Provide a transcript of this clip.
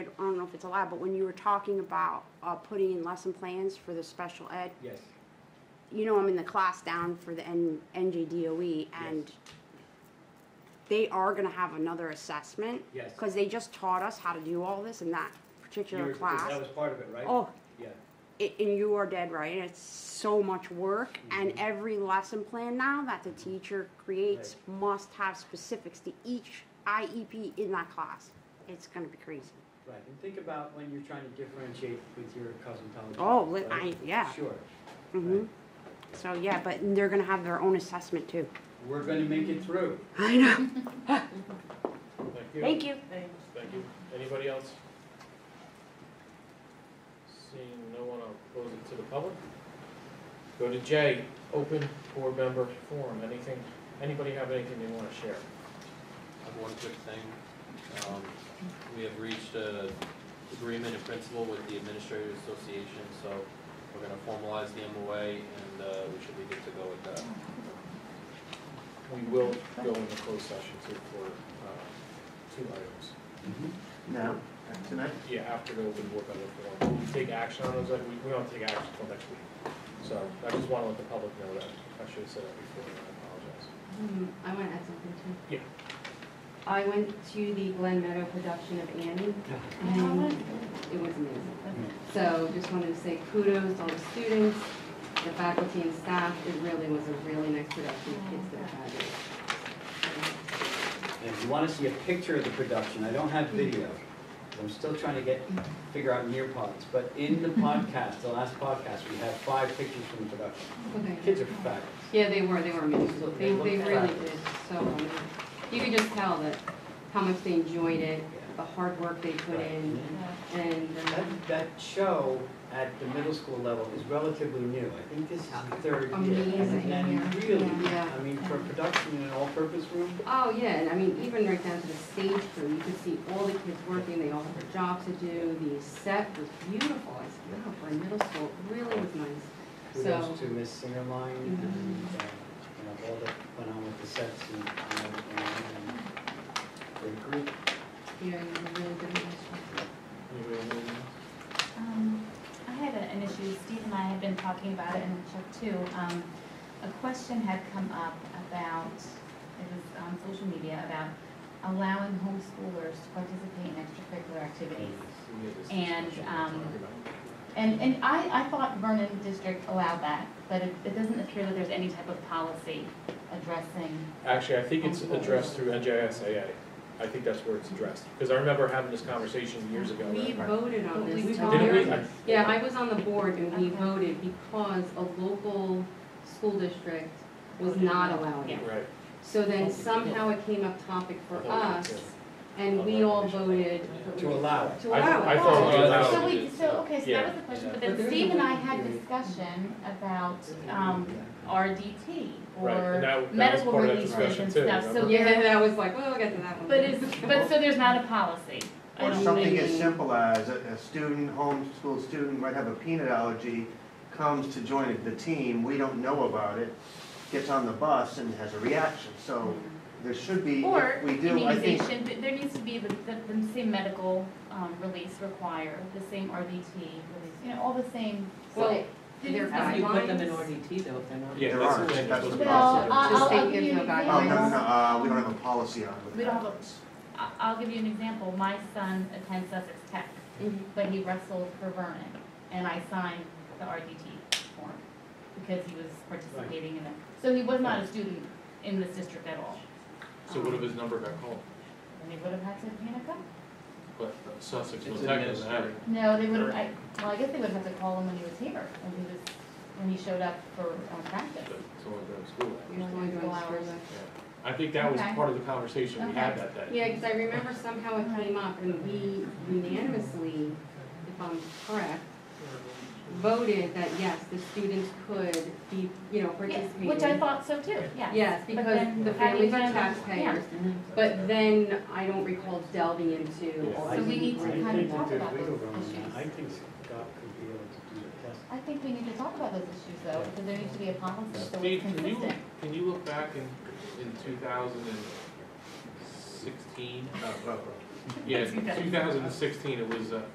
I don't know if it's allowed, but when you were talking about, uh, putting in lesson plans for the special ed, Yes, you know, I'm in the class down for the N- NJDOE E and Yes. they are gonna have another assessment. Yes. Cause they just taught us how to do all this in that You particular were- That class. was part of it, right? Oh, Yeah, it, and you are dead right. It's so much work, Mm-hmm. and every lesson plan now that the teacher creates must have specifics to each IEP in that class. It's gonna be crazy. right, and think about when you're trying to differentiate with your cousin Tom. Oh, li- I- yeah. Sure. hmm Right. So yeah, but they're gonna have their own assessment too. We're gonna make it through. I know. Thank you. Thank you. Thank you. Anybody else? Seeing no one, I'll close it to the public. Go to J, open board member forum. Anything, anybody have anything they want to share? I have one quick thing. Um, We have reached an agreement in principle with the Administrative Association, so we're gonna formalize the MOA, and uh, we should be good to go with that. We will go into closed session too for uh, two items. No, tonight? Yeah, after the open board member forum. We'll take action on those, like, we we don't take action until next week. So I just want to let the public know that. I should have said that before, and I Hmm, I want to add something too. Yeah. I went to the Glen Meadow production of Annie, and it was amazing. So just wanted to say kudos to all the students, the faculty and staff. It really was a really nice production, the kids that had it. And if you wanna see a picture of the production, I don't have video. I'm still trying to get, figure out Nearpods, but in the podcast, the last podcast, we had five pictures from the production. Okay. Kids are fabulous. Yeah, they were, they were amazing. They, they really Looked did so well. You could just tell that, how much they enjoyed it, the hard work they put in, and, uh, That, that show at the middle school level is relatively new. I think this is the third year. Amazing, And really, Yeah. I mean, for production in an all-purpose room, Oh, yeah, and I mean, even right down to the stage crew, you could see all the kids working, they all had their jobs to do, the set was beautiful, I said, wow, for a middle school, it really was nice. So, kudos to Miss Singerline and, Mm-hmm. uh, you know, all that went on with the sets and, and, and great group. yeah, you did a really good apologize. Anybody have anything? Um, I had a- an issue, Steve and I had been talking about it, and Chuck too. Um, A question had come up about, it was on social media, about allowing homeschoolers to participate in extracurricular activities. And, um, And, and I, I thought Vernon District allowed that, but it, it doesn't appear that there's any type of policy addressing. Actually, I think it's addressed through NJSAA. I think that's where it's addressed, because I remember having this conversation years ago. one. We right? voted on this. We so voted. there- Didn't we? I- Yeah, I was on the board and we Okay. voted because a local school district was not allowing it. Right. So then somehow it came up topic for I thought it us, was, and we all voted To allow it. to I- allow it. I thought we Oh, allowed So it. we, so, okay, so that was the question, but But then there's Steve a and I way to had do it. discussion about, um, RDT Right, and that- that or was medical part of that releases and discussion too, stuff, so remember? Yeah, there, and I was like, well, we'll get to that one. but it's, but so there's not a policy. I Or don't something think. as simple as a, a student, homeschool student might have a peanut allergy, comes to join the team, we don't know about it, gets on the bus and has a reaction, so there should be, Or if we do, I think. immunization, but there needs to be the, the, the same medical, um, release required, the same RDT release, you know, all the same. Well, Didn't- their If you put them in guidelines. RDT though, if they're not. Yeah, There that's aren't, the thing. that's the Well, policy. I- Just I'll, think I'll if give you an no Oh, guidelines. example. no, no, no, uh, we don't have a policy on it. We don't have a, I, I'll give you an example, my son attends Sussex Tech, Mhm. but he wrestled for Vernon, and I signed the RDT form, because he was participating in it. So he was not a student in this district at all, So what if his number got called? and they would have had to panic up. But uh, Sussex It's was technically not. administrative. No, they would have, I, well, I guess they would have had to call him when he was here, when he was, when he showed up for, um, but practice. It's only during school hours. You know, going to Allow it. I think that was Okay. part of the conversation we had that day. Yeah, because I remember somehow it came up and we unanimously, if I'm correct, voted that yes, the students could be, you know, Yeah, participating. which I thought so too, yeah. Yes, But because then the how do you families are then- taxpayers, but then I don't recall delving into. Yeah. all So the we need to details. kind of talk about those I issues. think God could be able to do the test. I think we need to talk about those issues though, because there needs to be a policy so Steve, it's can you, consistent. Can you look back in, in two thousand and sixteen? Oh, No, no, no. Yeah, 2016, it was, uh,